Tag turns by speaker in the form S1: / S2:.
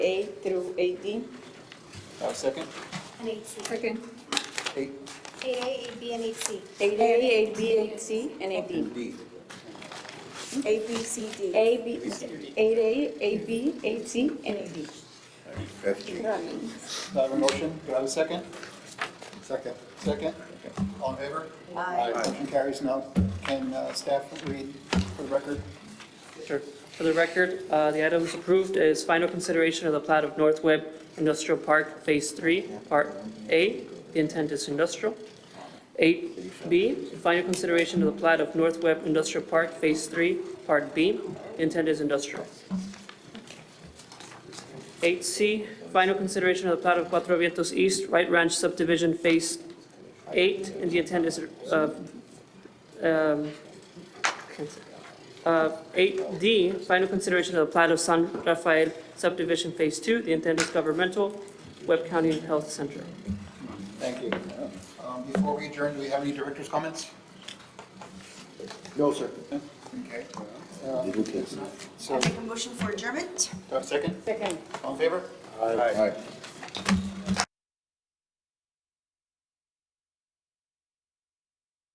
S1: A through 8D.
S2: Uh, second,
S3: and 8C.
S4: Second.
S2: eight
S3: 8A, 8B, and 8C.
S1: 8A, 8B, 8C, and 8D.
S2: D.
S1: A, B, C, D. A, B, 8A, 8B, 8C, and 8D. Running.
S2: Do I have a motion? Do I have a second?
S5: Second.
S2: Second? All in favor?
S1: Aye.
S2: Motion carries now. Can uh, staff read for the record?
S6: Sure. For the record, uh, the items approved is final consideration of the plat of North Webb Industrial Park Phase 3, Part A, the intent is industrial. 8B, final consideration of the plat of North Webb Industrial Park Phase 3, Part B, the intent is industrial. 8C, final consideration of the plat of Cuatro Vientos East Right Ranch Subdivision Phase 8, and the intent is uh, um, Uh, 8D, final consideration of the plat of San Rafael subdivision Phase 2, the intent is governmental, Webb County Health Center.
S2: Thank you. Um, Before we adjourn, do we have any director's comments?
S5: No, sir.
S2: Okay. Uh,
S5: All
S2: So, do
S7: Make a motion for adjournment?
S2: I have a second?
S1: Second.
S2: All in favor?
S5: right.